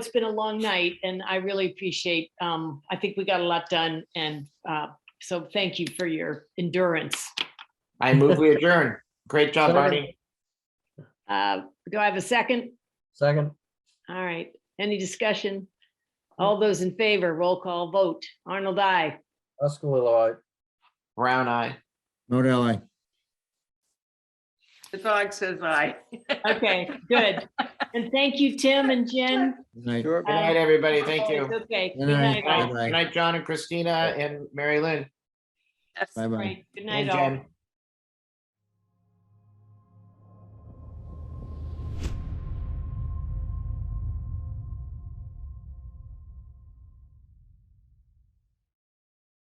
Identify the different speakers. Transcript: Speaker 1: it's been a long night and I really appreciate, um, I think we got a lot done and, uh, so thank you for your endurance.
Speaker 2: I move we adjourn. Great job,
Speaker 3: Second.
Speaker 2: Barney.
Speaker 1: Uh, do I have a second?
Speaker 3: Second,
Speaker 1: All right, any discussion? All those in favor, roll call vote. Arnold, I.
Speaker 3: Uskalilowit.
Speaker 2: Brown eye.
Speaker 4: Not ally.
Speaker 5: The dog says aye.
Speaker 1: Okay, good. And thank you, Tim and Jen. Uh,
Speaker 4: Good
Speaker 2: Good night, everybody. Thank you. Good
Speaker 1: Okay.
Speaker 4: Good
Speaker 1: Good night,
Speaker 4: night.
Speaker 1: all.
Speaker 2: night, Good night, John and Christina and Mary Lynn
Speaker 5: Yes.
Speaker 4: Bye bye.
Speaker 1: Right, Good
Speaker 2: and
Speaker 1: night, all.
Speaker 2: Jen.